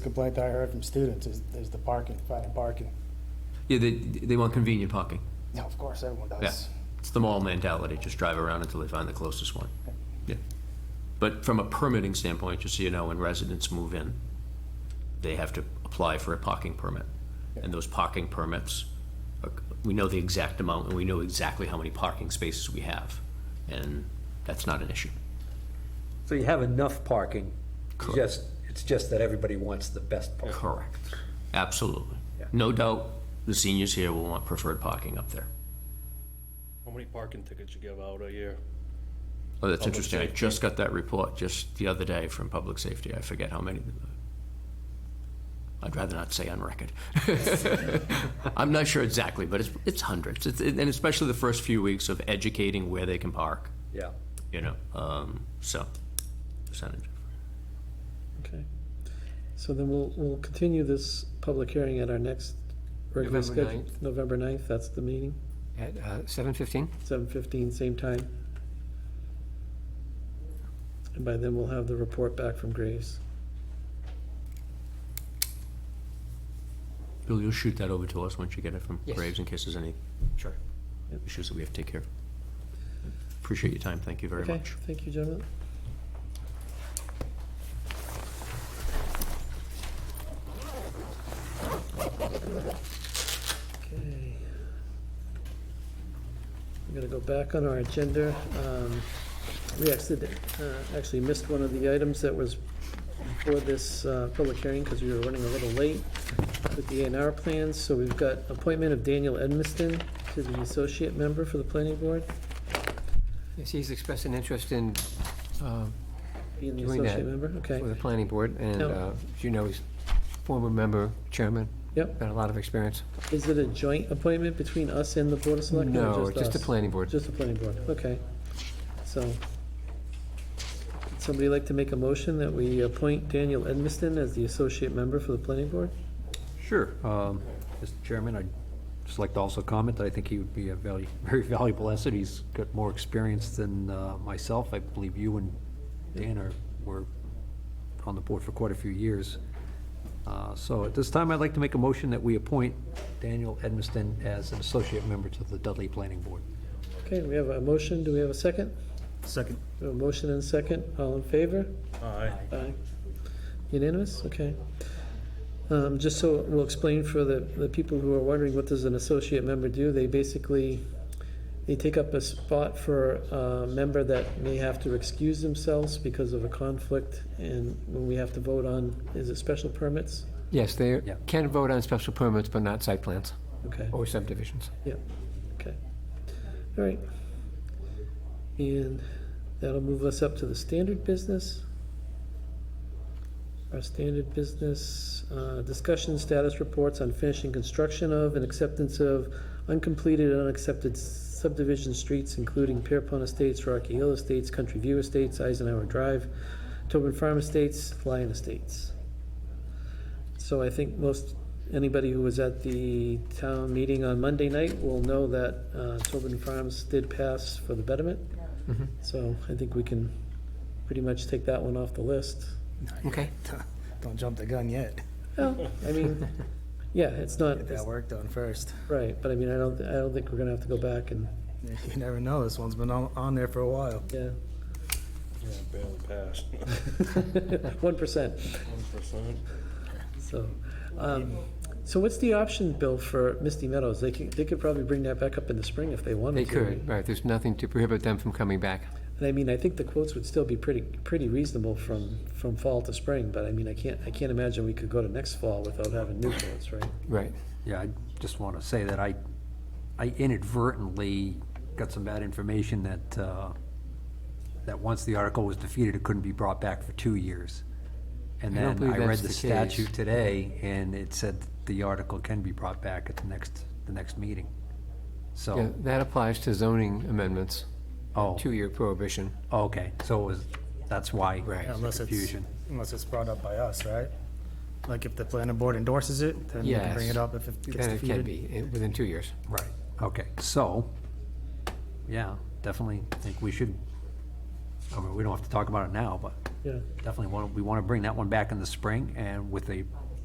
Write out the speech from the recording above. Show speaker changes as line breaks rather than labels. complaint I heard from students is, is the parking, finding parking.
Yeah, they, they want convenient parking.
No, of course, everyone
Yeah,
does.
it's the mall mentality, just drive around until they find the closest one. Yeah. But from a permitting standpoint, just so you know, when residents move in, they have to apply for a parking permit. And those parking permits, are- we know the exact amount, and we know exactly how many parking spaces we have, and that's not an issue.
So you have enough parking, it's just, it's just that everybody wants the best parking.
Correct. Absolutely.
Yeah.
No doubt, the seniors here will want preferred parking up there.
How many parking tickets you give out a year?
Oh, that's
Public
interesting. I
safety.
just got that report just the other day from Public Safety. I forget how many. I'd rather not say on record. I'm not sure exactly, but it's, it's hundreds. It's, and especially the first few weeks of educating where they can park,
Yeah.
you know, um, so percentage.
Okay. So then we'll, we'll continue this public hearing at our next regular
November
schedule. November 9th, that's the meeting,
At uh, 7:15?
7:15, same time. And by then we'll have the report back from Graves.
Bill, you'll shoot that over to us once you get it from
Yes.
Graves in case there's any
Sure.
issues that we have to take care of. Appreciate your time. Thank you very
Okay,
much.
thank you, gentlemen. Okay. I'm gonna go back on our agenda. Um, We actually, uh, actually missed one of the items that was for this uh, public hearing because we were running a little late with the A and R plans. So we've got appointment of Daniel Edmiston to the associate member for the planning board.
Yes, he's expressed an interest in, uh,
Being the
Doing that.
associate member, okay.
for the planning board, and
No.
uh, as you know, he's former member, chairman,
Yep.
got a lot of experience.
Is it a joint appointment between us and the Board of Selectmen? or
No, just the
us?
planning board.
Just the planning board, okay. So, would somebody like to make a motion that we appoint Daniel Edmiston as the associate member for the planning board?
Sure. um, Mr. Chairman, I'd just like to also comment that I think he would be a valu- very valuable asset. He's got more experience than uh, myself. I believe you and Dan are, were on the board for quite a few years. Uh, So at this time, I'd like to make a motion that we appoint Daniel Edmiston as an associate member to the Dudley Planning Board.
Okay, we have a motion, do we have a second?
Second.
We have a motion and a second, all in favor?
Aye.
Aye. Unanimous, okay. Um, Just so we'll explain for the, the people who are wondering, what does an associate member do? They basically, they take up a spot for a member that may have to excuse themselves because of a conflict, and when we have to vote on, is it special permits?
Yes, they
Yeah.
can vote on special permits, but not site plans
Okay,
or subdivisions.
yeah, okay. All right. And that'll move us up to the standard business. Our standard business, uh, discussion status reports on finishing construction of and acceptance of uncompleted and unaccepted subdivision streets, including Pierpont Estates, Rocky Hill Estates, Country View Estates, Eisenhower Drive, Tobin Farm Estates, Lyon Estates. So I think most, anybody who was at the town meeting on Monday night will know that uh, Tobin Farms did pass for the betterment.
Mm-hmm.
So I think we can pretty much take that one off the list.
Okay.
Don't jump the gun yet.
Well, I mean, yeah, it's not,
Get that work done first.
right, but I mean, I don't, I don't think we're gonna have to go back and,
You never know, this one's been on, on there for a while.
yeah,
Yeah, barely passed.
one percent,
One percent.
so. um, So what's the option, Bill, for Misty Meadows? They could, they could probably bring that back up in the spring if they
They
wanted to.
could, right, there's nothing to prohibit them from coming back.
And I mean, I think the quotes would still be pretty, pretty reasonable from, from fall to spring, but I mean, I can't, I can't imagine we could go to next fall without having new quotes, right?
Right.
Yeah, I just want to say that I, I inadvertently got some bad information that, uh, that once the article was defeated, it couldn't be brought back for two years. And
I don't
then
believe
I read
that's
the
the case.
statute today, and it said the article can be brought back at the next, the next meeting.
Yeah,
So,
that applies to zoning amendments,
oh,
two-year prohibition.
okay, so it was, that's why.
Right.
the
Unless it's,
Confusion.
unless it's brought up by us, right? Like if the planning board endorses it, then you can bring
Yes.
it up if it gets
Then it can
defeated.
be, eh, within two years.
Right, okay, so, yeah, definitely think we should I mean, we don't have to talk about it now, but
yeah.
definitely want, we want to bring that one back in the spring and with a